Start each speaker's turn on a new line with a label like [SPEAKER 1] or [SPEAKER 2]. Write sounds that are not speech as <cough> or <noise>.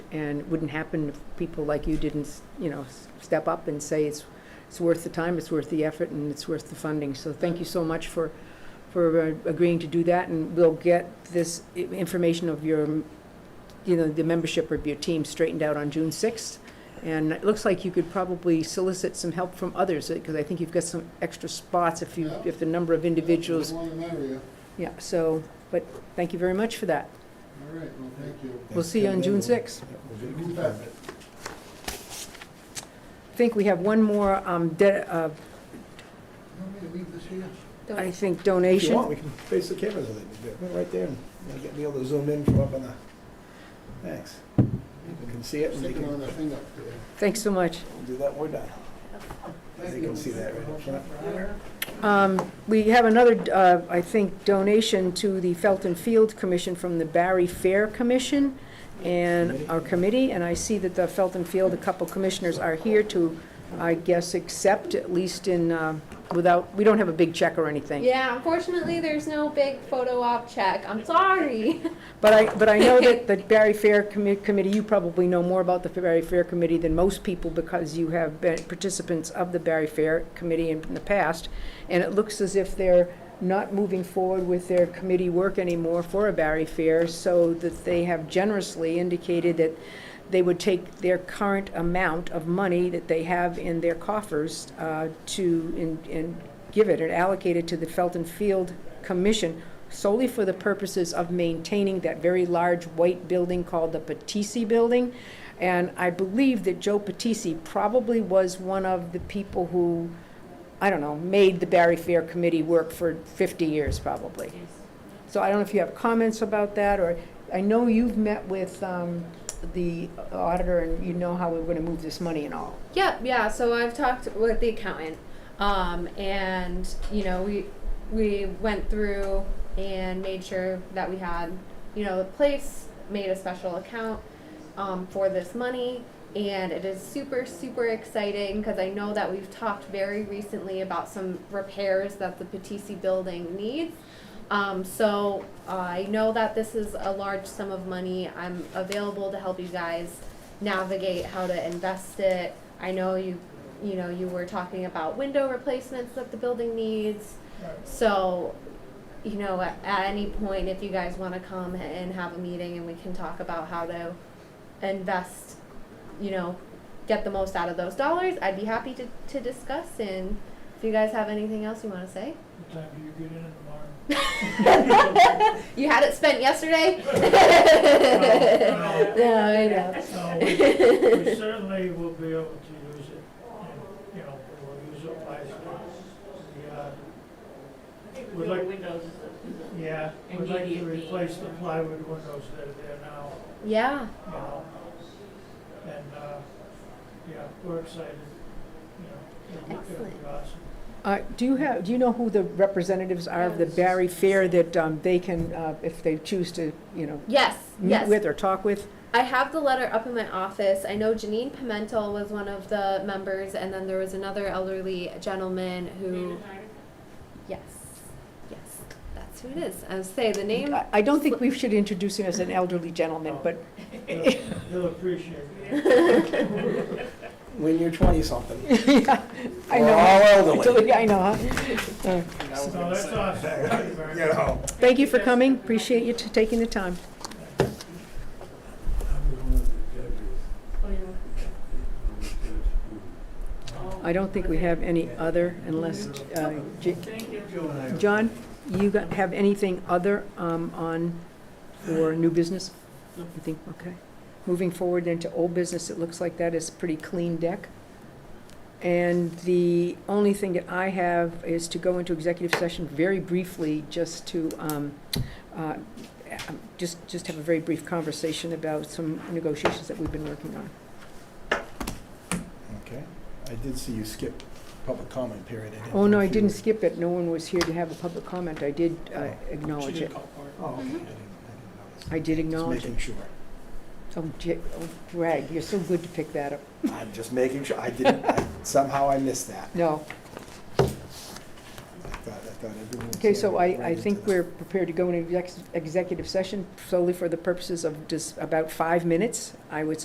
[SPEAKER 1] and it wouldn't happen if people like you didn't, s- you know, s- step up and say it's, it's worth the time, it's worth the effort, and it's worth the funding. So thank you so much for, for uh, agreeing to do that, and we'll get this i- information of your, mm, you know, the membership of your team straightened out on June 6th. And it looks like you could probably solicit some help from others, because I think you've got some extra spots if you,
[SPEAKER 2] Yeah.
[SPEAKER 1] if the number of individuals
[SPEAKER 2] One in that area.
[SPEAKER 1] yeah, so, but thank you very much for that.
[SPEAKER 2] All right, well, thank you.
[SPEAKER 1] We'll see you on June 6th.
[SPEAKER 2] Who's that?
[SPEAKER 1] I think we have one more, um, de- uh,
[SPEAKER 2] You want me to leave this here?
[SPEAKER 1] I think,
[SPEAKER 3] If you want,
[SPEAKER 1] donation.
[SPEAKER 3] we can face the cameras with it, We're right there, and we'll get- be able to zoom in from up on the, thanks. People can see it, and they
[SPEAKER 2] Sticking on
[SPEAKER 3] can
[SPEAKER 2] the thing up there.
[SPEAKER 1] Thanks so much.
[SPEAKER 3] do that, we're done. They
[SPEAKER 2] Thank
[SPEAKER 3] can
[SPEAKER 2] you.
[SPEAKER 3] see that right up front.
[SPEAKER 1] Um, We have another, uh, I think, donation to the Felton Field Commission from the Barry Fair Commission and our committee, and I see that the Felton Field, a couple commissioners are here to, I guess, accept, at least in, uh, without, we don't have a big check or anything.
[SPEAKER 4] Yeah, unfortunately, there's no big photo op check. I'm sorry.
[SPEAKER 1] But I, but I know that the Barry Fair Commi- Committee, you probably know more about the Barry Fair Committee than most people because you have been participants of the Barry Fair Committee in in the past. And it looks as if they're not moving forward with their committee work anymore for a Barry Fair, so that they have generously indicated that they would take their current amount of money that they have in their coffers uh, to, and- and give it, and allocate it to the Felton Field Commission solely for the purposes of maintaining that very large white building called the Patisi Building. And I believe that Joe Patisi probably was one of the people who, I don't know, made the Barry Fair Committee work for 50 years, probably. So I don't know if you have comments about that, or, I know you've met with um, the auditor, and you know how we're going to move this money and all.
[SPEAKER 4] Yep, yeah. So I've talked with the accountant, um, and you know we we went through and made sure that we had you know the place made a special account um, for this money, and it is super super exciting because I know that we've talked very recently about some repairs that the Patisi building needs. Um, so I know that this is a large sum of money. I'm available to help you guys navigate how to invest it. I know you, you know, you were talking about window replacements that the building needs. So, you know, at, at any point, if you guys want to come and have a meeting and we can talk about how to invest, you know, get the most out of those dollars, I'd be happy to, to discuss. And if you guys have anything else you want to say,
[SPEAKER 5] What time do you get in tomorrow?
[SPEAKER 4] you had it spent yesterday. <laughs> Yeah,
[SPEAKER 5] No,
[SPEAKER 4] I know.
[SPEAKER 5] No, we we certainly will be able to use it, and, you know, we'll use it wisely. We, uh, Would like-
[SPEAKER 6] Windows is a- is
[SPEAKER 5] Yeah, we'd like to
[SPEAKER 6] Immediately.
[SPEAKER 5] replace the plywood windows that are there now,
[SPEAKER 4] Yeah.
[SPEAKER 5] you know. And, uh, yeah, we're excited, you know. it'll be- it'll be
[SPEAKER 4] Excellent.
[SPEAKER 5] awesome.
[SPEAKER 1] Uh, Do you have, do you know who the representatives are of the Barry Fair that um, they can, uh, if they choose to, you know,
[SPEAKER 4] Yes.
[SPEAKER 1] meet
[SPEAKER 4] yes.
[SPEAKER 1] with or talk with?
[SPEAKER 4] I have the letter up in my office. I know Janine Pimentel was one of the members, and then there was another elderly gentleman who. Yes. Yes. That's who it is. I was say the name.
[SPEAKER 1] I- I don't think we should introduce him as an elderly gentleman, but <laughs>
[SPEAKER 5] He'll he'll appreciate it.
[SPEAKER 3] When
[SPEAKER 1] <laughs>
[SPEAKER 3] you're twenty-something,
[SPEAKER 1] I
[SPEAKER 3] we're
[SPEAKER 1] know.
[SPEAKER 3] all
[SPEAKER 1] <laughs>
[SPEAKER 3] elderly.
[SPEAKER 1] I know, huh?
[SPEAKER 4] <laughs>
[SPEAKER 1] Uh,
[SPEAKER 5] No, that's awesome. Thank you very
[SPEAKER 3] You
[SPEAKER 5] much.
[SPEAKER 3] know.
[SPEAKER 1] Thank you for coming, appreciate you t- taking the time. I don't think we have any other unless, uh, J-
[SPEAKER 6] Thank you.
[SPEAKER 1] John, you got- have anything other um, on for new business? You think, okay. Moving forward into old business, it looks like that is pretty clean deck. And the only thing that I have is to go into executive session very briefly, just to, um, uh, just, just have a very brief conversation about some negotiations that we've been working on.
[SPEAKER 3] Okay, I did see you skip public comment period.
[SPEAKER 1] Oh, no,
[SPEAKER 3] know
[SPEAKER 1] I
[SPEAKER 3] if you-
[SPEAKER 1] didn't skip it. No one was here to have a public comment. I did uh, acknowledge it.
[SPEAKER 3] Oh, okay, I didn't, I didn't notice.
[SPEAKER 1] Mm-hmm. I did acknowledge
[SPEAKER 3] Just
[SPEAKER 1] it.
[SPEAKER 3] making sure.
[SPEAKER 1] Oh, J- oh, Greg, you're so good to pick that up.
[SPEAKER 3] I'm just making sure, I didn't, I- somehow I missed that.
[SPEAKER 1] No.
[SPEAKER 3] I thought, I thought everyone was
[SPEAKER 1] Okay, so I,
[SPEAKER 3] right
[SPEAKER 1] I
[SPEAKER 3] into
[SPEAKER 1] think
[SPEAKER 3] that.
[SPEAKER 1] we're prepared to go into exec- executive session solely for the purposes of just about five minutes, I would